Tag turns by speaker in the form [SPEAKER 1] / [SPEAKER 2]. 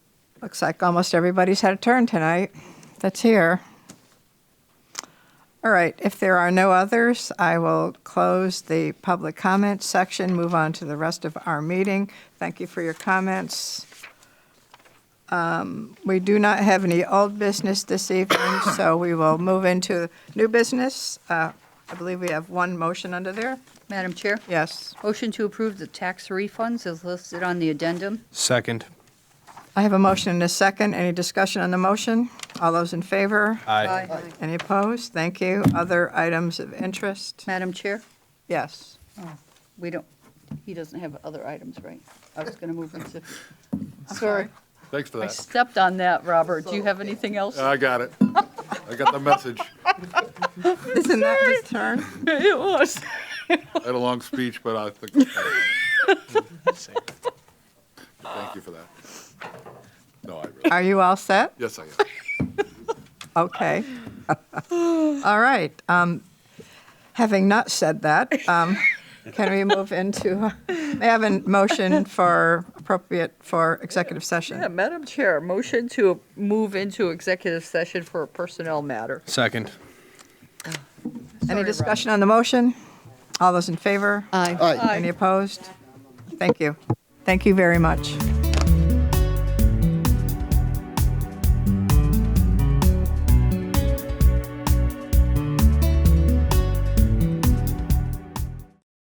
[SPEAKER 1] Looks like almost everybody's had a turn tonight that's here. All right, if there are no others, I will close the public comment section, move on to the rest of our meeting. Thank you for your comments. Um, We do not have any old business this evening, so we will move into new business. Uh, I believe we have one motion under there.
[SPEAKER 2] Madam Chair,
[SPEAKER 1] Yes.
[SPEAKER 2] motion to approve the tax refunds as listed on the addendum.
[SPEAKER 3] Second.
[SPEAKER 1] I have a motion and a second. Any discussion on the motion? All those in favor? Any opposed? Thank you. Other items of interest?
[SPEAKER 2] Madam Chair,
[SPEAKER 1] Yes.
[SPEAKER 2] we don't, he doesn't have other items, right? I was going to move into, sorry,
[SPEAKER 4] Thanks for
[SPEAKER 2] I
[SPEAKER 4] that.
[SPEAKER 2] stepped on that, Robert. Do you have anything else?
[SPEAKER 4] I got it. I got the message.
[SPEAKER 1] Isn't that his turn?
[SPEAKER 2] It was.
[SPEAKER 4] I had a long speech, but I think. Thank you for that. No, I really,
[SPEAKER 1] Are you all set?
[SPEAKER 4] yes, I am.
[SPEAKER 1] Okay. All right. um, Having not said that, um, can we move into, may I have a motion for appropriate for executive
[SPEAKER 2] Yeah,
[SPEAKER 1] session?
[SPEAKER 2] Madam Chair, motion to move into executive session for a personnel matter.
[SPEAKER 3] Second.
[SPEAKER 1] Any
[SPEAKER 2] Sorry,
[SPEAKER 1] discussion on the motion? All those in favor?
[SPEAKER 2] Aye.
[SPEAKER 1] Any opposed? Thank you. Thank you very much.